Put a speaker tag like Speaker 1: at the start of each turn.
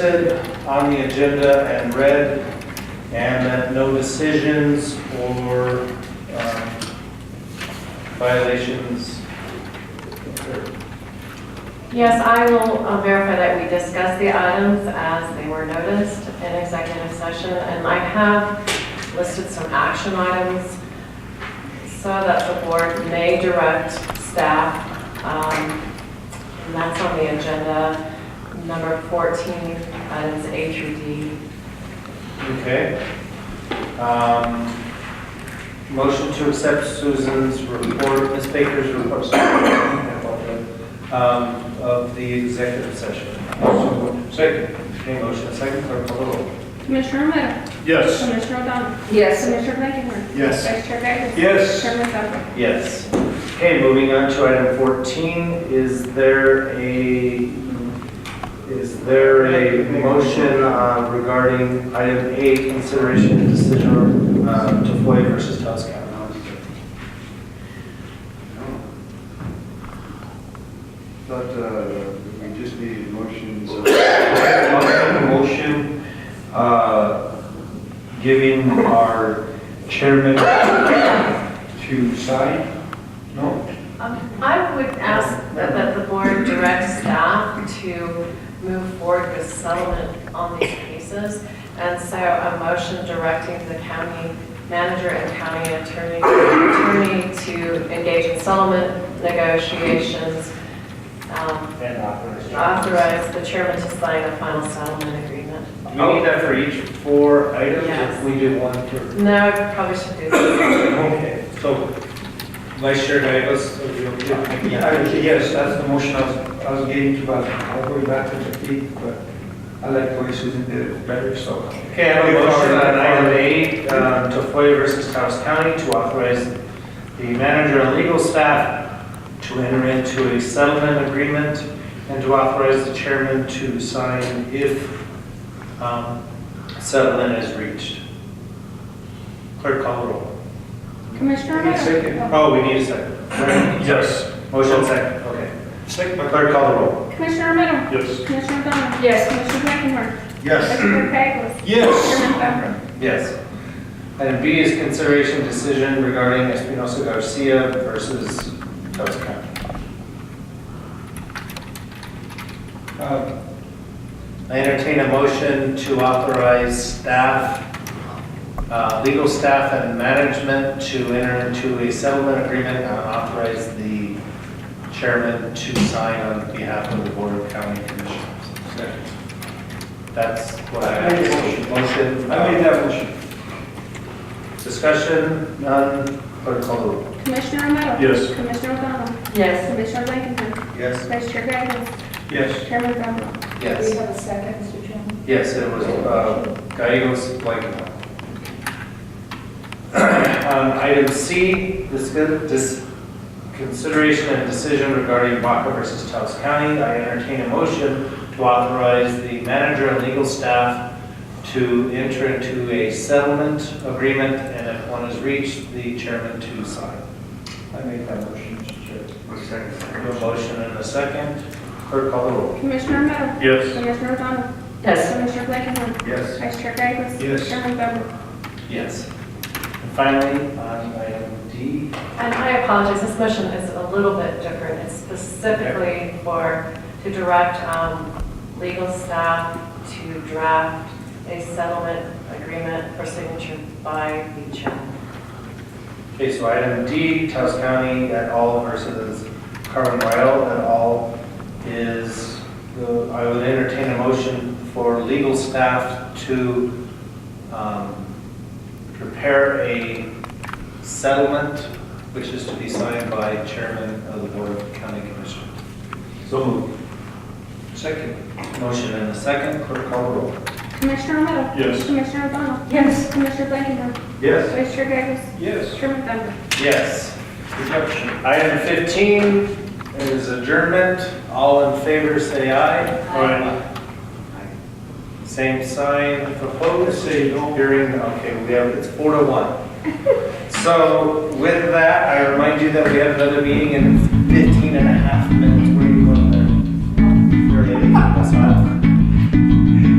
Speaker 1: listed on the agenda and read, and that no decisions or um, violations occurred.
Speaker 2: Yes, I will uh, verify that we discussed the items as they were noticed in executive session, and I have listed some action items so that the board may direct staff. um, And that's on the agenda, number 14, items A through D.
Speaker 1: Okay. Um, Motion to accept Susan's report, Ms. Baker's report, sorry, I apologize, um, of the executive session. Second. Okay, motion, second, clerk, call the roll.
Speaker 3: Commissioner Romero?
Speaker 4: Yes.
Speaker 3: Commissioner O'Donnell?
Speaker 2: Yes.
Speaker 3: Commissioner Blakenher?
Speaker 4: Yes.
Speaker 3: Vice Chair Gagos?
Speaker 4: Yes.
Speaker 3: Chairman Bojek?
Speaker 1: Yes. Okay, moving on to item 14, is there a, is there a motion uh, regarding item A, consideration and decision uh, to FOIA versus Taos County?
Speaker 5: But uh, we just needed motions.
Speaker 6: I'll make a motion, uh, giving our chairman to sign. No?
Speaker 2: I would ask that that the board direct staff to move forward with settlement on these cases. And so a motion directing the county manager and county attorney, attorney to engage in settlement negotiations, um,
Speaker 1: And authorize.
Speaker 2: authorize the chairman to sign a final settlement agreement.
Speaker 1: Do we need that for each four items?
Speaker 2: Yes.
Speaker 1: If we do one per,
Speaker 2: No, I probably should do that.
Speaker 1: okay. So Vice Chair Gagos, are you okay?
Speaker 6: Yes, that's the motion I was, I was getting to, but I'll go back to the feet, but I like the way Susan did it better, so.
Speaker 1: Okay, I have a motion on item eight, um, to FOIA versus Taos County to authorize the manager and legal staff to enter into a settlement agreement and to authorize the chairman to sign if um, settlement is reached. Clerk call the roll.
Speaker 3: Commissioner Romero?
Speaker 6: Second.
Speaker 1: Oh, we need a second.
Speaker 4: Yes.
Speaker 1: Motion second, okay.
Speaker 4: Second.
Speaker 1: Clerk call the roll.
Speaker 3: Commissioner Romero?
Speaker 4: Yes.
Speaker 3: Commissioner O'Donnell?
Speaker 2: Yes.
Speaker 3: Commissioner Blakenher? Vice
Speaker 6: Yes.
Speaker 3: Chair Gagos?
Speaker 4: Yes.
Speaker 3: Chairman Bojek?
Speaker 1: Yes. Item B is consideration decision regarding Espinosa Garcia versus Taos County.
Speaker 6: Uh,
Speaker 1: I entertain a motion to authorize staff, uh, legal staff and management to enter into a settlement agreement and authorize the chairman to sign on behalf of the Board of County Commissioners. That's what I.
Speaker 6: I made the motion.
Speaker 1: Motion.
Speaker 6: I made that motion.
Speaker 1: Discussion, none, clerk call the roll.
Speaker 3: Commissioner Romero?
Speaker 4: Yes.
Speaker 3: Commissioner O'Donnell?
Speaker 2: Yes.
Speaker 3: Commissioner Blakenher?
Speaker 6: Yes.
Speaker 3: Vice Chair Gagos?
Speaker 6: Yes.
Speaker 3: Chairman Bojek?
Speaker 1: Yes.
Speaker 7: have a second, Mr. Chairman?
Speaker 1: Yes, it was uh, Gallegos Blankenhorn. Um, Item C, this this consideration and decision regarding Baca versus Taos County. I entertain a motion to authorize the manager and legal staff to enter into a settlement agreement, and if one is reached, the chairman to sign.
Speaker 6: I made that motion, Mr. Chair.
Speaker 1: I have A motion and a second. Clerk call the roll.
Speaker 3: Commissioner Romero?
Speaker 4: Yes.
Speaker 3: Commissioner O'Donnell?
Speaker 2: Yes.
Speaker 3: Commissioner Blakenher?
Speaker 6: Yes.
Speaker 3: Vice Chair Gagos?
Speaker 6: Yes.
Speaker 3: Chairman Bojek?
Speaker 1: Yes. And finally, on item D,
Speaker 2: And I apologize, this motion is a little bit different. It's specifically for, to direct um, legal staff to draft a settlement agreement for signature by the chairman.
Speaker 1: Okay, so item D, Taos County et al. versus Carmen Royal et al. is, uh, I would entertain a motion for legal staff to um, prepare a settlement, which is to be signed by chairman of the Board of County Commissioners.
Speaker 4: So moved.
Speaker 6: Second.
Speaker 1: Motion and a second, clerk call the roll.
Speaker 3: Commissioner Romero?
Speaker 4: Yes.
Speaker 3: Commissioner O'Donnell? Yes. Commissioner Blakenher?
Speaker 6: Yes.
Speaker 3: Vice Chair Gagos?
Speaker 6: Yes.
Speaker 3: Chairman Bojek?
Speaker 1: Yes. Item 15 is adjournment. All in favor, say aye. Aye. Same sign, opposed, say no. Hearing, okay, we have, it's four to one. So with that, I remind you that we have another meeting in 15 and a half minutes. We're